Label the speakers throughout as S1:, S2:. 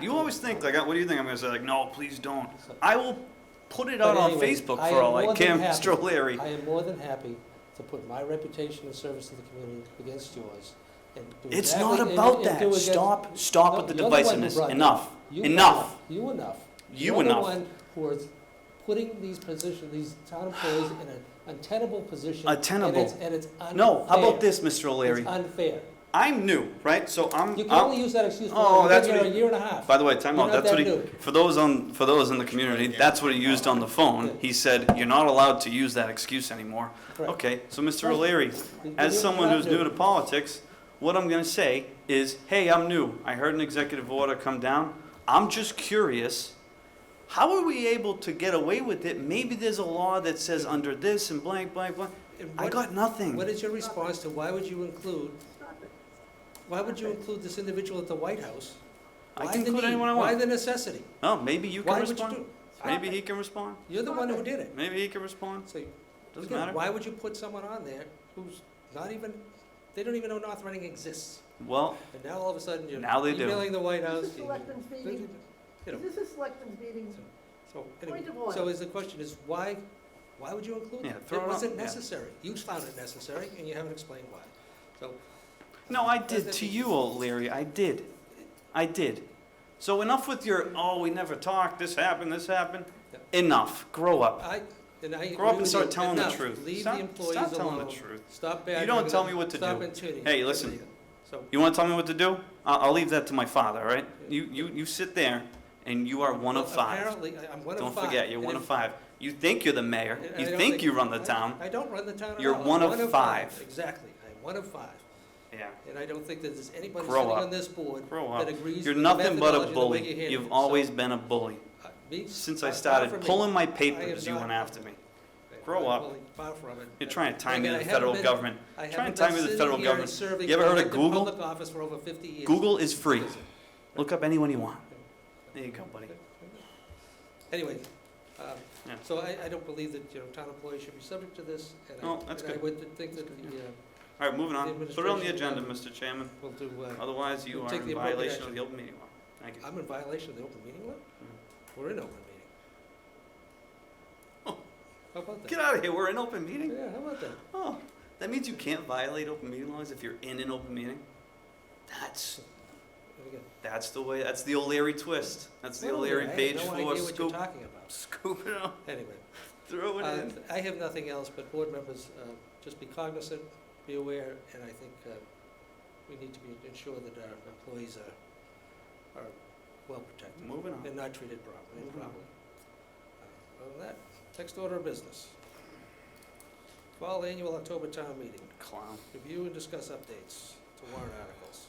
S1: You always think like, what do you think I'm gonna say? Like, no, please don't. I will put it out
S2: But
S1: on
S2: anyway,
S1: Facebook
S2: I
S1: for
S2: am
S1: all I
S2: more than
S1: can,
S2: happy-
S1: Mr. O'Leary.
S2: I am more than happy to put my reputation and service to the community against yours. and do
S1: It's
S2: exactly-
S1: not
S2: and-
S1: about
S2: and do
S1: that.
S2: against-
S1: Stop, stop
S2: No,
S1: with the
S2: you're the one who
S1: divisiveness.
S2: brought it
S1: Enough,
S2: You
S1: enough,
S2: You enough.
S1: you
S2: You're the
S1: enough.
S2: one who is putting these positions, these town employees in an untenable position. and
S1: Untenable.
S2: it's- And it's unfair.
S1: No, how about this, Mr. O'Leary?
S2: It's unfair.
S1: I'm new, right? So I'm,
S2: You can
S1: I'm-
S2: only use that excuse
S1: Oh,
S2: for, you've
S1: that's
S2: been
S1: what
S2: here a year and a half.
S1: By the way, time
S2: You're
S1: out.
S2: not
S1: That's what
S2: that
S1: he,
S2: new.
S1: for those on, for those in the community, that's what he used on the phone. He said, you're not allowed to use that excuse anymore.
S2: Correct.
S1: Okay, so Mr.
S2: Right.
S1: O'Leary,
S2: You're
S1: as
S2: not
S1: someone who's new
S2: new.
S1: to politics, what I'm gonna say is, hey, I'm new. I heard an executive order come down. I'm just curious. How are we able to get away with it? Maybe there's a law that says under this and blank, blank, blank.
S2: And
S1: I
S2: what-
S1: got nothing.
S2: What is your response to why would you include, why would you include this individual at the White House?
S1: I
S2: Why
S1: can
S2: the
S1: include
S2: need?
S1: anyone I
S2: Why
S1: want.
S2: the necessity?
S1: No, maybe you
S2: Why
S1: can
S2: would you
S1: respond.
S2: do?
S1: Maybe he can respond.
S2: You're the one who did it.
S1: Maybe he can respond.
S2: So,
S1: Doesn't
S2: again,
S1: matter.
S2: Why would you put someone on there who's not even, they don't even know North Reading exists?
S1: Well,
S2: And now all of a sudden you're
S1: Now they do.
S2: emailing the White House.
S3: This is
S2: you-
S3: selectmen's meeting,
S2: you know,
S3: this is selectmen's meeting,
S2: So, anyway,
S3: Point of order.
S2: so is the question is why, why would you include
S1: Yeah,
S2: it?
S1: throw it
S2: It
S1: on-
S2: wasn't
S1: yeah.
S2: necessary. You found it necessary and you haven't explained why. So,
S1: No, I
S2: Does
S1: did
S2: that
S1: to
S2: make
S1: you,
S2: sense?
S1: O'Leary. I did. I did. So enough with your, oh, we never talked, this happened, this happened. Enough. Grow up.
S2: I, and I.
S1: Grow up
S2: agree
S1: and
S2: with
S1: start
S2: you.
S1: telling the
S2: Enough.
S1: truth.
S2: Leave
S1: Stop-
S2: the employees alone.
S1: Stop telling the truth.
S2: Stop
S1: don't
S2: bad.
S1: tell me what to
S2: Stop
S1: do.
S2: intuiting.
S1: Hey, listen.
S2: So,
S1: You want to tell me what to do? I'll, I'll leave that to my father, all right? You, you, you sit there and you are one of five.
S2: Apparently, I- I'm one of
S1: Don't
S2: five.
S1: forget, you're
S2: and
S1: one
S2: if-
S1: of five. You think you're the mayor.
S2: and I
S1: You
S2: don't
S1: think you run the
S2: I-
S1: town.
S2: I don't run the town at
S1: You're
S2: all. I'm
S1: one of five.
S2: Exactly. I'm one of five.
S1: Yeah.
S2: And I don't think that there's anybody
S1: Grow
S2: sitting
S1: up.
S2: on this board
S1: Grow
S2: that
S1: up.
S2: agrees
S1: You're
S2: with the
S1: nothing but
S2: methodology
S1: a
S2: and the way
S1: bully.
S2: you handle it.
S1: You've
S2: So,
S1: always been a bully.
S2: uh, me-
S1: Since I
S2: far- far
S1: started
S2: from me.
S1: pulling my
S2: I am
S1: papers, you
S2: not-
S1: went after me.
S2: I'm
S1: grow
S2: not
S1: up.
S2: bullying, Far from it.
S1: You're trying to tie me
S2: Again,
S1: to
S2: I
S1: the
S2: haven't
S1: federal
S2: been-
S1: government.
S2: I
S1: Try and
S2: haven't
S1: tie
S2: been
S1: me to the
S2: sitting
S1: federal
S2: here
S1: government.
S2: and serving
S1: You ever heard of
S2: elected
S1: Google?
S2: public office for over 50 years.
S1: Google is free. Look up anyone you want. There you go, buddy.
S2: Anyway, um,
S1: Yeah.
S2: so I, I don't believe that, you know, town employees should be subject to this, and I.
S1: No, that's
S2: and
S1: good.
S2: I would think that the, uh,
S1: All right, moving on. Put it on the
S2: Administration.
S1: agenda, Mr. Chairman.
S2: we'll do, uh,
S1: Otherwise, you
S2: We'll
S1: are
S2: take the
S1: in
S2: appropriate
S1: violation of
S2: action.
S1: the open meeting law. Thank you.
S2: I'm in violation of the open meeting law? We're in open meeting.
S1: Mm-hmm. Oh.
S2: How about that?
S1: Get out of here. We're in open meeting.
S2: Yeah, how about that?
S1: Oh, that means you can't violate open meeting laws if you're in an open meeting? That's,
S2: There we go.
S1: that's the way, that's the O'Leary twist. That's the
S2: Well,
S1: O'Leary
S2: I have
S1: page
S2: no
S1: four
S2: idea what you're
S1: scoop.
S2: talking about.
S1: Scoop it up,
S2: Anyway.
S1: throw it
S2: Uh,
S1: in.
S2: I have nothing else, but board members, uh, just be cognizant, be aware, and I think uh, we need to be, ensure that our employees are, are well protected
S1: Moving on.
S2: and not treated properly,
S1: Mhm.
S2: improperly. Uh, Other than that, next order of business. Fall annual October town meeting,
S1: Clown.
S2: review and discuss updates to warrant articles.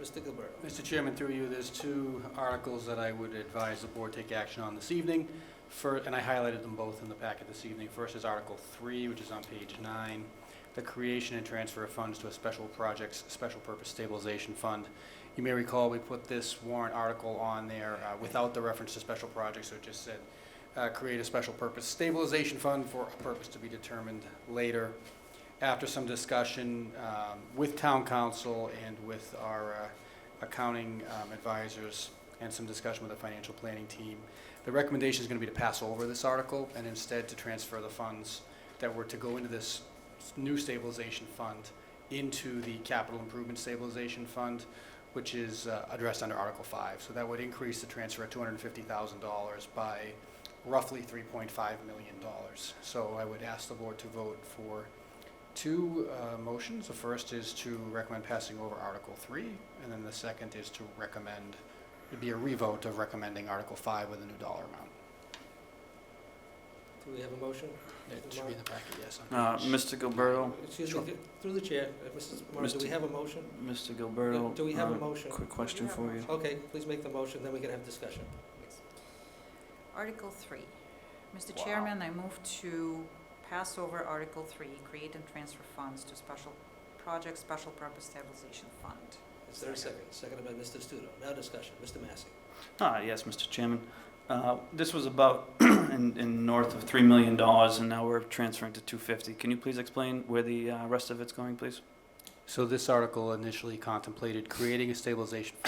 S2: Mr. Gilberto.
S1: Uh,
S4: Mr. Chairman, through you, there's two articles that I would advise the board take action on this evening. Fir- and I highlighted them both in the packet this evening. First is Article Three, which is on page nine, the creation and transfer of funds to a special projects, special purpose stabilization fund. You may recall, we put this warrant article on there uh, without the reference to special projects, so it just said, uh, create a special purpose stabilization fund for a purpose to be determined later after some discussion um, with town council and with our uh, accounting um, advisors and some discussion with the financial planning team, the recommendation is going to be to pass over this article and instead to transfer the funds that were to go into this new stabilization fund into the capital improvement stabilization fund, which is uh, addressed under Article 5. So that would increase the transfer of $250,000 by roughly $3.5 million. So I would ask the board to vote for two uh, motions. The first is to recommend passing over Article 3, and then the second is to recommend, it'd be a revote of recommending Article 5 with a new dollar amount.
S2: Do we have a motion?
S4: It should be in the packet, yes. on
S1: Uh,
S4: page-
S1: Mr. Gilberto,
S2: Excuse
S4: Sure.
S2: me, through the chair, uh, Mrs. Mars, do we
S1: Mr.
S2: have a motion?
S1: Mr. Gilberto.
S2: Do we have a
S1: uh,
S2: motion?
S1: Quick question for you.
S2: Okay, please make the motion, then we can have discussion.
S5: Article 3. Mr.
S1: Wow.
S5: Chairman, I move to pass over Article 3, create and transfer funds to special project special purpose stabilization fund.
S2: Is there a second? Seconded by Mr. Studo. Now discussion. Mr. Massey.
S1: Ah, yes, Mr. Chairman. Uh, This was about in, in north of $3 million, and now we're transferring to 250. Can you please explain where the uh, rest of it's going, please?
S4: So this article initially contemplated creating a stabilization